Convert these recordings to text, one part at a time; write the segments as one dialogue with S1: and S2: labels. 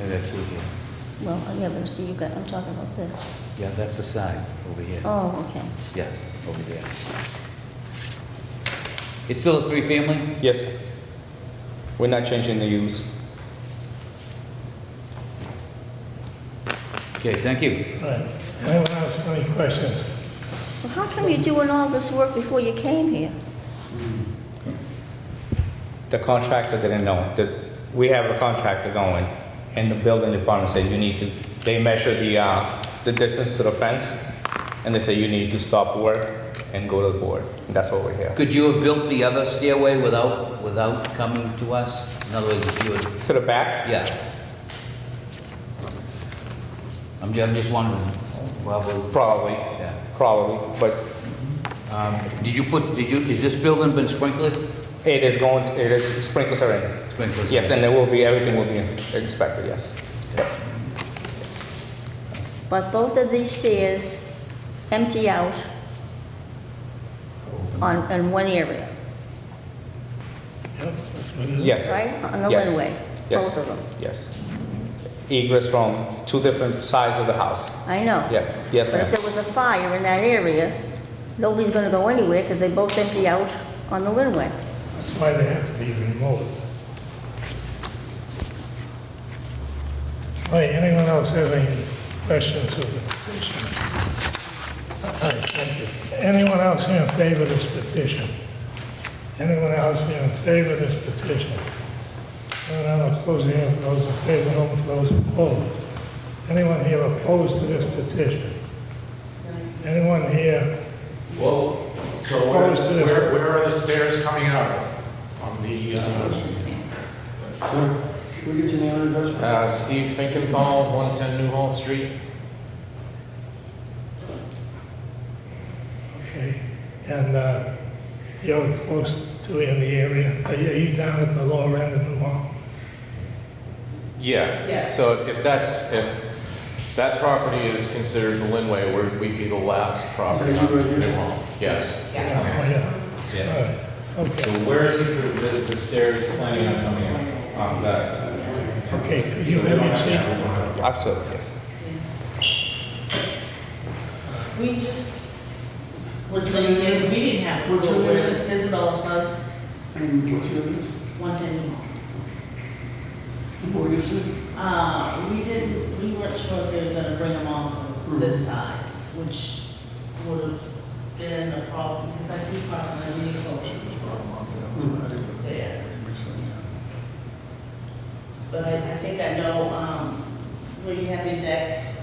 S1: and that's over here.
S2: Well, yeah, but see, you got, I'm talking about this.
S1: Yeah, that's the side over here.
S2: Oh, okay.
S1: Yeah, over there. It's still a three-family?
S3: Yes, sir. We're not changing the use.
S1: Okay, thank you.
S4: Right. Anyone else have any questions?
S2: Well, how come you're doing all this work before you came here?
S3: The contractor didn't know. The- We have a contractor going, and the building department said you need to, they measure the, uh, the distance to the fence, and they say you need to stop work and go to the board. And That's what we're here.
S1: Could you have built the other stairway without, without coming to us? In other words, if you would,
S3: To the back?
S1: yeah. I'm ju- I'm just wondering, well, we'll-
S3: Probably,
S1: yeah.
S3: probably, but
S1: Um, Did you put, did you, is this building been sprinkled?
S3: it is going, it is sprinklers are in.
S1: Sprinkled.
S3: Yes, and there will be, everything will be inspected, yes.
S2: But both of these stairs empty out on, in one area,
S4: Yep, that's what it is.
S3: Yes.
S2: right? On the
S3: Yes.
S2: runway,
S3: Yes.
S2: both of them.
S3: Yes. Egress from two different sides of the house.
S2: I know.
S3: Yeah, yes,
S2: But if
S3: ma'am.
S2: there was a fire in that area, nobody's gonna go anywhere because they both empty out on the runway.
S4: That's why they have to be removed. Right, anyone else have any questions of the petition? All right, thank you. Anyone else here in favor of this petition? Anyone else here in favor of this petition? Anyone else closing in, those in favor, no, those opposed? Anyone here opposed to this petition? Anyone here,
S5: Well, so
S4: Oh,
S5: where,
S4: it's in the-
S5: where, where are the stairs coming out of? On the, uh,
S6: Can we get your name and address?
S5: uh, Steve Finkenthal, one ten New Hall Street?
S4: okay, and uh, you're close to in the area, are you- are you down at the lower end of the mall?
S5: Yeah, so if that's, if that property is considered the Linway, we're, we'd be the last property
S6: Is that
S5: on
S6: you
S5: the
S6: right here?
S5: New Hall. Yes.
S4: Oh, yeah, all right,
S7: So
S4: okay,
S7: where is it for the, the stairs planning on coming up? Um, that's.
S4: okay, could you let me see?
S3: Absolutely, yes.
S8: We just,
S6: What's
S8: we
S6: your name?
S8: didn't, we didn't have,
S6: What's your name?
S8: Isabel Suggs,
S6: And what's your address?
S8: one ten.
S6: And what is it?
S8: Uh, we didn't, we weren't sure if they were gonna bring them on from this side, which would have been a problem, because I keep on my vehicle there. But I, I think I know, um, where you have your deck.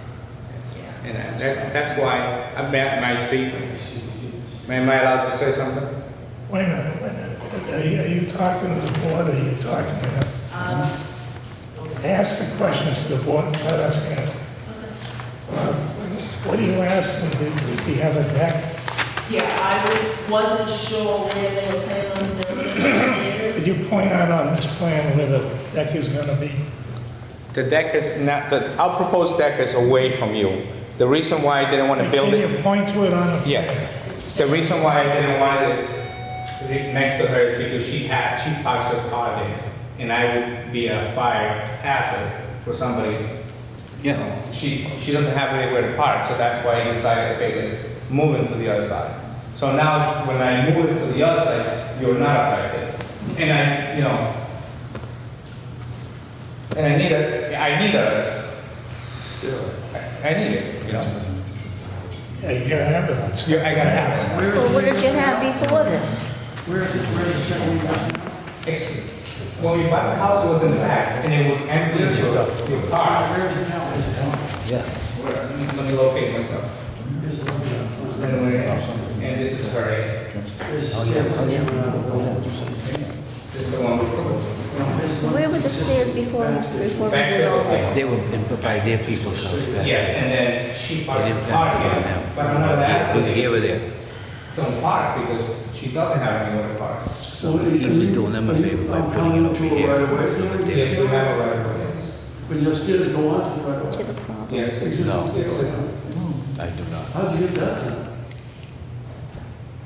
S8: Yeah.
S7: And that, that- that's why I'm at my speak. Am I allowed to say something?
S4: Wait a minute, wait a minute. Are you, are you talking to the board, or are you talking to him?
S8: Um,
S4: Ask the questions to the board, and let us answer. Uh, What are you asking, does he have a deck?
S8: yeah, I was, wasn't sure where they were planning on building the
S4: Could you point out on this plan where the deck is gonna be?
S3: The deck is not, the, our proposed deck is away from you. The reason why I didn't want to build
S4: Can
S3: it,
S4: you point to it on the?
S3: yes. The reason why I didn't want it is re- next to her is because she had, she parks her car there. And I would be a fire hazard for somebody.
S1: Yeah.
S3: She, she doesn't have anywhere to park, so that's why I decided, okay, let's move it to the other side. So now, when I move it to the other side, you're not affected. And I, you know, and I need a, I need a, I I need it, you know.
S4: Yeah, you gotta have it.
S3: Yeah, I gotta have
S6: Where
S2: Well,
S6: is
S2: what
S6: it?
S2: did you have before then?
S6: Where is it, where is it, where is it?
S3: It's, when we bought the house, it was in back, and it was empty, so your car,
S6: Where is it now? Is it down?
S1: Yeah.
S3: let me locate myself.
S6: Here's the one down front.
S3: And we- and this is her, end.
S6: There's a stair coming out of the wall.
S3: this is the one we proposed.
S6: No, there's one-
S2: Where were the stairs before, before we
S3: Back
S2: did all this?
S1: They were in- by their people's house back.
S3: Yes, and then she parked
S1: It
S3: the car
S1: impacted on
S3: here,
S1: them.
S3: but I'm not
S1: Whether
S3: asking,
S1: here or there.
S3: don't park, because she doesn't have anywhere to park.
S6: So
S1: He was doing them a favor by putting it over here. so that
S3: Yes,
S1: they-
S3: you have a right of way, yes.
S6: But your stairs go on to the right of
S2: To
S6: way.
S2: the problem.
S3: Yes.
S6: Existing stairs.
S1: I do not.
S6: How'd you get that done?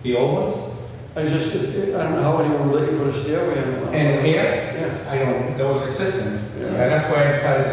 S3: The old ones,
S6: I just, I don't know how anyone would let you put a stairway in.
S3: and here,
S6: Yeah.
S3: I don't, those existing, and that's why I decided